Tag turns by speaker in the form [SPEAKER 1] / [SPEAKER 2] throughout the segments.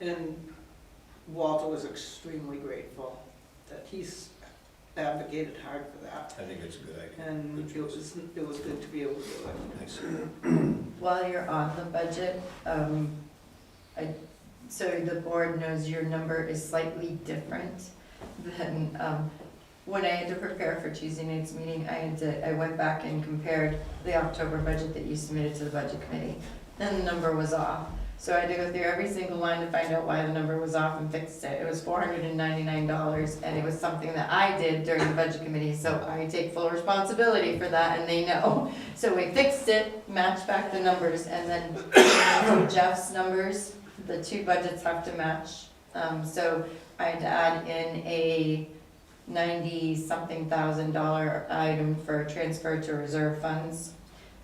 [SPEAKER 1] And Walter was extremely grateful that he's advocated hard for that.
[SPEAKER 2] I think it's a good idea.
[SPEAKER 1] And it was, it was good to be able to do it.
[SPEAKER 2] Thanks.
[SPEAKER 3] While you're on the budget, um, I, so the board knows your number is slightly different than, um, when I had to prepare for Tuesday night's meeting, I had to, I went back and compared the October budget that you submitted to the budget committee, and the number was off. So I had to go through every single line to find out why the number was off and fixed it. It was four hundred and ninety-nine dollars, and it was something that I did during the budget committee, so I take full responsibility for that, and they know. So we fixed it, matched back the numbers, and then from Jeff's numbers, the two budgets have to match. Um, so I had to add in a ninety-something thousand dollar item for transfer to reserve funds,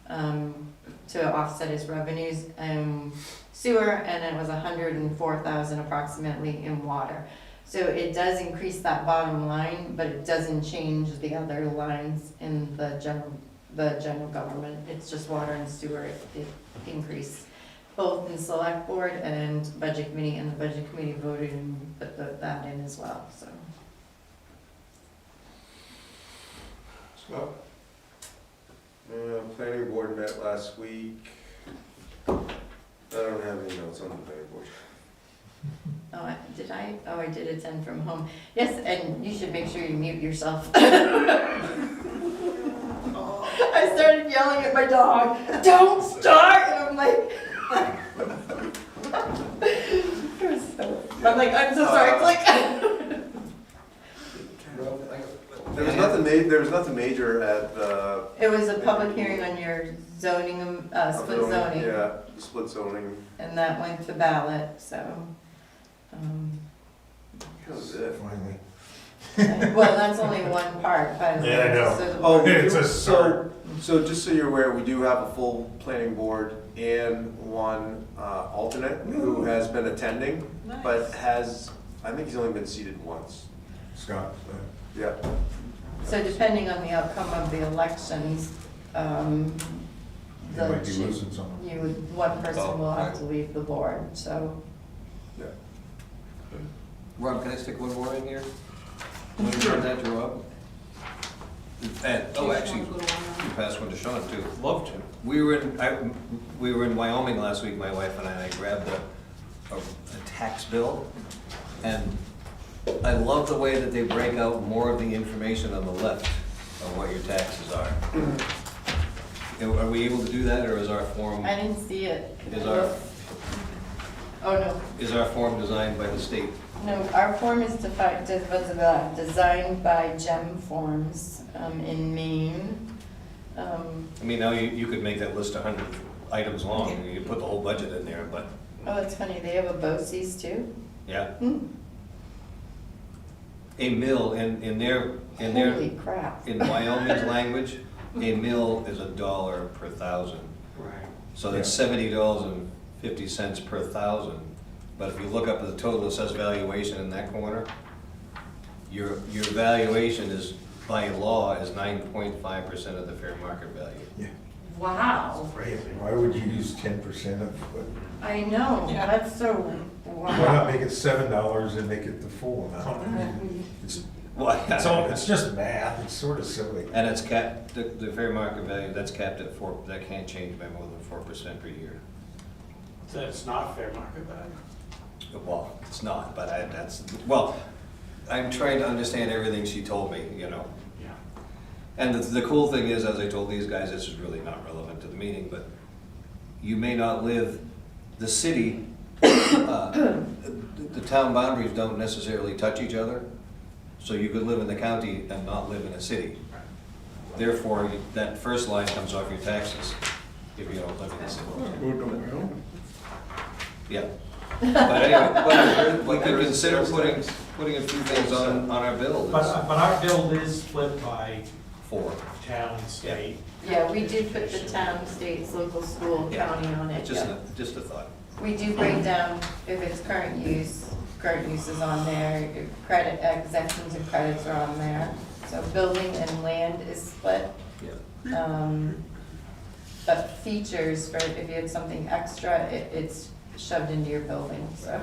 [SPEAKER 3] um, to offset his revenues in sewer, and it was a hundred and four thousand approximately in water. So it does increase that bottom line, but it doesn't change the other lines in the general the general government, it's just water and sewer i- i- increase. Both in select board and budget committee, and the budget committee voted and put the- that in as well, so.
[SPEAKER 4] Scott? Uh, planning board met last week. I don't have any notes on the planning board.
[SPEAKER 3] Oh, I- did I, oh, I did attend from home, yes, and you should make sure you mute yourself. I
[SPEAKER 1] Oh.
[SPEAKER 3] started yelling at my dog, don't start, and I'm like. It was so- I'm like, I'm so sorry, it's like.
[SPEAKER 4] There was nothing ma, there was nothing major at the.
[SPEAKER 3] It was a public hearing on your zoning, um, uh, split zoning.
[SPEAKER 4] Yeah, split zoning.
[SPEAKER 3] And that went to ballot, so, um,
[SPEAKER 4] That was it.
[SPEAKER 5] Finally.
[SPEAKER 3] well, that's only one part, but.
[SPEAKER 5] Yeah, I know.
[SPEAKER 3] so the-
[SPEAKER 4] Oh,
[SPEAKER 5] It's a
[SPEAKER 4] so, so just so you're aware, we do have a full planning board and one uh, alternate who has been attending, but has, I think he's only been seated once.
[SPEAKER 5] Scott, uh,
[SPEAKER 4] Yeah.
[SPEAKER 3] So depending on the outcome of the elections, um,
[SPEAKER 5] you
[SPEAKER 3] the
[SPEAKER 5] might be
[SPEAKER 3] chief,
[SPEAKER 5] losing someone.
[SPEAKER 3] you, would- one person will have to leave the board, so.
[SPEAKER 6] Rob, can I stick one more in here? When you turn that to Rob? And, oh, actually, you passed one to Sean too.
[SPEAKER 2] Love to.
[SPEAKER 6] We were in, I, we were in Wyoming last week, my wife and I, and I grabbed a, a, a tax bill. And I love the way that they break out more of the information on the left of what your taxes are. Are- Are we able to do that, or is our form,
[SPEAKER 3] I didn't see it.
[SPEAKER 6] is our,
[SPEAKER 3] Oh, no,
[SPEAKER 6] is our form designed by the state?
[SPEAKER 3] No, our form is defined, was about designed by GEM Forms um, in Maine. Um,
[SPEAKER 6] I mean, now you, you could make that list a hundred items long, and you could put the whole budget in there, but,
[SPEAKER 3] Oh, that's funny, they have a BOCES too?
[SPEAKER 6] yeah.
[SPEAKER 3] Hmm.
[SPEAKER 6] A mill, in, in their, in
[SPEAKER 3] Holy
[SPEAKER 6] their,
[SPEAKER 3] crap.
[SPEAKER 6] in Wyoming's language, a mill is a dollar per thousand.
[SPEAKER 2] Right.
[SPEAKER 6] So that's seventy dollars and fifty cents per thousand. But if you look up at the total assessed valuation in that corner, your, your valuation is, by law, is nine point five percent of the fair market value.
[SPEAKER 5] Yeah.
[SPEAKER 3] Wow,
[SPEAKER 5] Why would you use ten percent of, what-
[SPEAKER 3] I know,
[SPEAKER 1] Yeah.
[SPEAKER 3] that's so,
[SPEAKER 5] why not
[SPEAKER 3] wow.
[SPEAKER 5] make it seven dollars and make it the full amount? I mean, It's,
[SPEAKER 6] Well,
[SPEAKER 5] it's all, it's just math, it's sort of silly.
[SPEAKER 6] And it's capped, the, the fair market value, that's capped at four, that can't change by more than four percent per year.
[SPEAKER 7] So it's not fair market value.
[SPEAKER 6] Well, it's not, but I, that's, well, I'm trying to understand everything she told me, you know.
[SPEAKER 7] Yeah.
[SPEAKER 6] And the, the cool thing is, as I told these guys, this is really not relevant to the meeting, but you may not live, the city, uh, the, the town boundaries don't necessarily touch each other. So you could live in the county and not live in a city. Therefore, that first line comes off your taxes if you don't live in the city. Yeah. But anyway, but we could consider putting, putting a few things on, on our bill.
[SPEAKER 7] But, uh, but our bill is split by
[SPEAKER 6] Four.
[SPEAKER 7] town, state.
[SPEAKER 3] Yeah, we do put the town, states, local, school,
[SPEAKER 6] Yeah.
[SPEAKER 3] county on it,
[SPEAKER 6] Just,
[SPEAKER 3] yeah.
[SPEAKER 6] a- just a thought.
[SPEAKER 3] We do break down if it's current use, current use is on there, if credit, exemptions and credits are on there. So building and land is split.
[SPEAKER 6] Yeah.
[SPEAKER 3] Um, But features for, if you had something extra, it, it's shoved into your building, so.